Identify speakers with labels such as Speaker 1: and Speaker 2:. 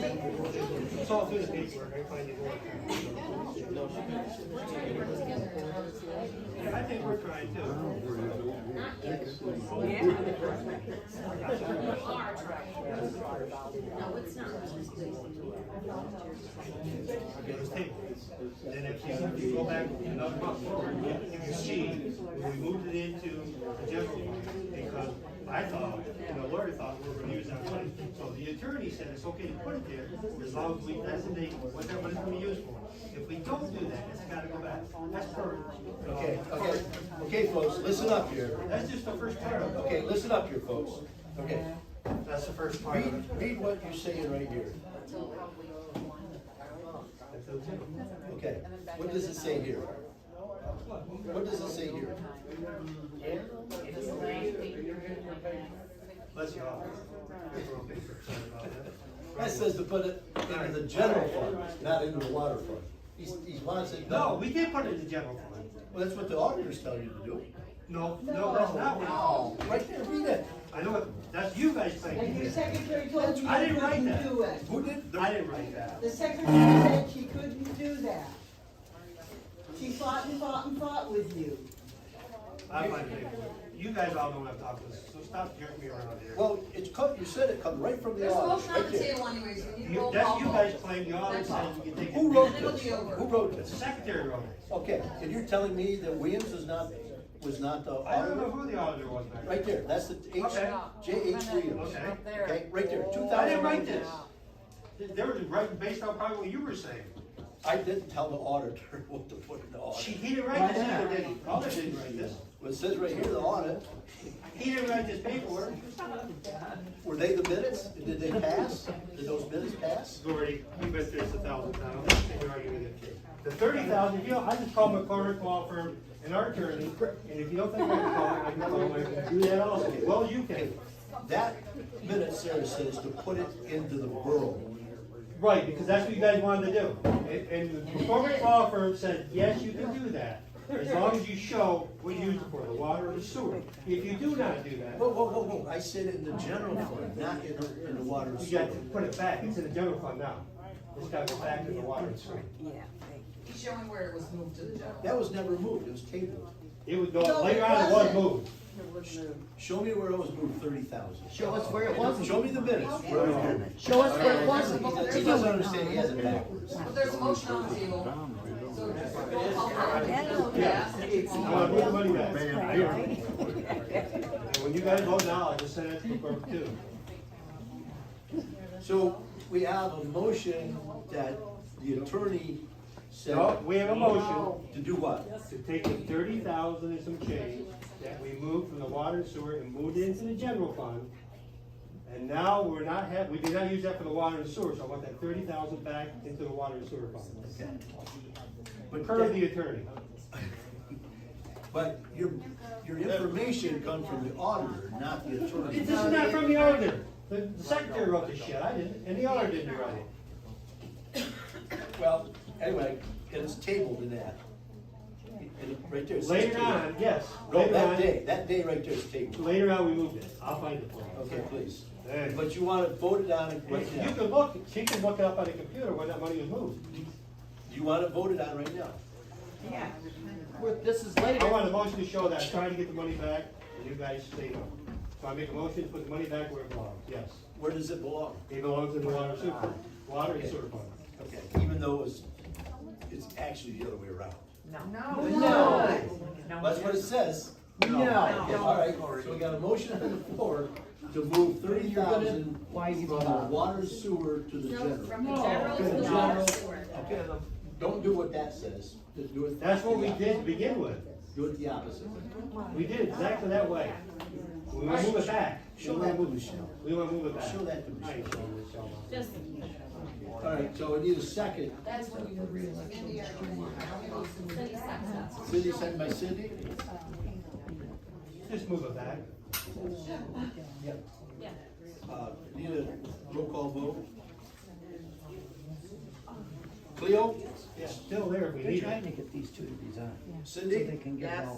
Speaker 1: It's all through the paperwork, I find it more. Yeah, I think we're trying to.
Speaker 2: No, it's not.
Speaker 1: get this table. Then if you, if you go back another month forward, you see, we moved it into the general fund, because I thought, and the lawyer thought we were gonna use that money. So the attorney said it's okay to put it there, as long as we designate what that money's gonna be used for. If we don't do that, it's gotta go back, that's per.
Speaker 3: Okay, okay, okay, folks, listen up here.
Speaker 1: That's just the first part of it,
Speaker 3: Okay, listen up here, folks. Okay,
Speaker 1: that's the first part of
Speaker 3: read,
Speaker 1: it.
Speaker 3: read what you're saying right here. Okay, what does it say here? What does it say here?
Speaker 1: Let's go. Sorry about that.
Speaker 3: That says to put it into the general fund, not into the water fund. He's, he's wants it.
Speaker 1: No, we did put it in the general fund.
Speaker 3: Well, that's what the auditors tell you to do.
Speaker 1: No, no, that's not what.
Speaker 3: No, right there, read it.
Speaker 1: I know it, that's you guys
Speaker 4: And
Speaker 1: thinking
Speaker 4: your
Speaker 1: this.
Speaker 4: secretary told you
Speaker 1: I
Speaker 4: you
Speaker 1: didn't write
Speaker 4: couldn't
Speaker 1: that.
Speaker 4: do it.
Speaker 3: Who did?
Speaker 1: I didn't write that.
Speaker 4: The secretary said she couldn't do that. She fought and fought and fought with you.
Speaker 1: I might be. You guys all know what I'm talking about, so stop jerking me around here.
Speaker 3: Well, it's cut, you said it come right from the
Speaker 2: There's votes
Speaker 3: audit,
Speaker 2: on
Speaker 3: right
Speaker 2: the
Speaker 3: there.
Speaker 2: table anyways, you need
Speaker 1: You,
Speaker 2: roll
Speaker 1: that's
Speaker 2: call
Speaker 1: you guys
Speaker 2: vote.
Speaker 1: claim you all
Speaker 2: That's
Speaker 1: said
Speaker 2: all.
Speaker 1: you can take it.
Speaker 3: Who wrote
Speaker 2: It'll
Speaker 3: this?
Speaker 2: be over.
Speaker 3: Who wrote
Speaker 1: The
Speaker 3: this?
Speaker 1: secretary wrote it.
Speaker 3: Okay, and you're telling me that Williams was not, was not the
Speaker 1: I don't know
Speaker 3: auditor?
Speaker 1: who the auditor was back
Speaker 3: Right
Speaker 1: there.
Speaker 3: there, that's the H,
Speaker 1: Okay.
Speaker 3: J H Williams.
Speaker 1: Okay.
Speaker 3: Okay, right there, two
Speaker 1: I
Speaker 3: thousand
Speaker 1: didn't write
Speaker 3: nineteen.
Speaker 1: this. They they were writing based on probably what you were saying.
Speaker 3: I didn't tell the auditor what to put in the
Speaker 1: She,
Speaker 3: audit.
Speaker 1: he didn't write this either, did he? Caller didn't write this.
Speaker 3: Well, it says right here, the audit,
Speaker 1: He didn't write this paperwork.
Speaker 3: were they the minutes? Did they pass? Did those minutes pass?
Speaker 1: Gordy, you bet there's a thousand times, I think you're arguing with it. The thirty thousand, you know, I just called McCormick Law Firm and our attorney, and if you don't think I can call it, I can call it, do that also, well, you
Speaker 3: Okay,
Speaker 1: can.
Speaker 3: that minute Sarah says to put it into the borough.
Speaker 1: Right, because that's what you guys wanted to do, and, and the McCormick Law Firm said, yes, you can do that, as long as you show what you use it for, the water and the sewer. If you do not do that,
Speaker 3: Whoa, whoa, whoa, whoa, I said in the general fund, not in the, in the water and
Speaker 1: you
Speaker 3: sewer.
Speaker 1: got to put it back, it's in the general fund now, it's gotta go back to the water and sewer.
Speaker 2: He's showing where it was moved to the general.
Speaker 3: That was never moved, it was tabled.
Speaker 1: It would
Speaker 4: No,
Speaker 1: go,
Speaker 4: it
Speaker 1: later on, it was
Speaker 4: wasn't.
Speaker 1: moved.
Speaker 3: Show me where it was moved thirty thousand.
Speaker 5: Show us where it wasn't.
Speaker 3: Show me the minutes. where it was moved.
Speaker 5: Show us where it wasn't.
Speaker 3: He doesn't understand, he has it backwards.
Speaker 2: But there's a motion on the table, so just roll call vote. Yes, if you
Speaker 1: I
Speaker 2: want.
Speaker 1: want to put the money back. And when you guys vote now, I just send it to the clerk too.
Speaker 3: So we have a motion that the attorney said
Speaker 1: So, we have a motion
Speaker 3: to do what?
Speaker 1: to take the thirty thousand and some change that we moved from the water and sewer and moved it into the general fund. And now we're not have, we did not use that for the water and sewer, so I want that thirty thousand back into the water and sewer fund.
Speaker 3: But,
Speaker 1: Per the attorney.
Speaker 3: but your, your information comes from the auditor, not the attorney.
Speaker 1: This is not from the auditor. The the secretary wrote this shit, I didn't, and the auditor didn't write it.
Speaker 3: Well, anyway, and it's tabled in that. And it- right there. it says
Speaker 1: Later
Speaker 3: tabled.
Speaker 1: on, yes,
Speaker 3: No,
Speaker 1: later
Speaker 3: that
Speaker 1: on,
Speaker 3: day, that day right there is tabled.
Speaker 1: later on, we moved it. I'll find it for you.
Speaker 3: Okay, please.
Speaker 1: Hey.
Speaker 3: But you want it voted on it
Speaker 1: You
Speaker 3: right now.
Speaker 1: can look, she can look it up on the computer when that money was moved.
Speaker 3: You want it voted on right now.
Speaker 5: We're- This is
Speaker 1: I
Speaker 5: later.
Speaker 1: want a motion to show that, I'm trying to get the money back, and you guys say no. So I make a motion to put the money back where it belongs, yes.
Speaker 3: Where does it belong?
Speaker 1: It belongs in the water and sewer, fund. water and sewer fund.
Speaker 3: Okay, even though it's, it's actually the other way around.
Speaker 5: No.
Speaker 3: That's what it says.
Speaker 5: No.
Speaker 3: Yeah, All right, so we got a motion on the floor to move thirty thousand
Speaker 5: Why you
Speaker 3: from the water and sewer to the
Speaker 2: No,
Speaker 3: general.
Speaker 2: from the general to
Speaker 3: From
Speaker 2: the
Speaker 3: the
Speaker 2: water
Speaker 3: general.
Speaker 2: and sewer.
Speaker 3: Okay, don't do what that says, just do it.
Speaker 1: That's what we did to begin with,
Speaker 3: Do it the opposite.
Speaker 1: we did it exactly that way. We wanna move it back. We
Speaker 3: Show
Speaker 1: wanna
Speaker 3: that to
Speaker 1: move
Speaker 3: Michelle.
Speaker 1: it- We wanna move it back.
Speaker 3: Show that to
Speaker 1: I ain't
Speaker 3: Michelle.
Speaker 1: showing Michelle.
Speaker 3: All right, so we need a second.
Speaker 2: That's when you would realize. It's gonna be our Cindy Saxon's.
Speaker 3: Cindy, second by Cindy?
Speaker 1: Just move it back.
Speaker 3: Yep. Uh, need a roll call vote? Cleo?
Speaker 1: It's still there if we need it.
Speaker 6: They're trying to get these two to be done, so
Speaker 3: Cindy?
Speaker 6: they can get
Speaker 5: Yes.
Speaker 6: all.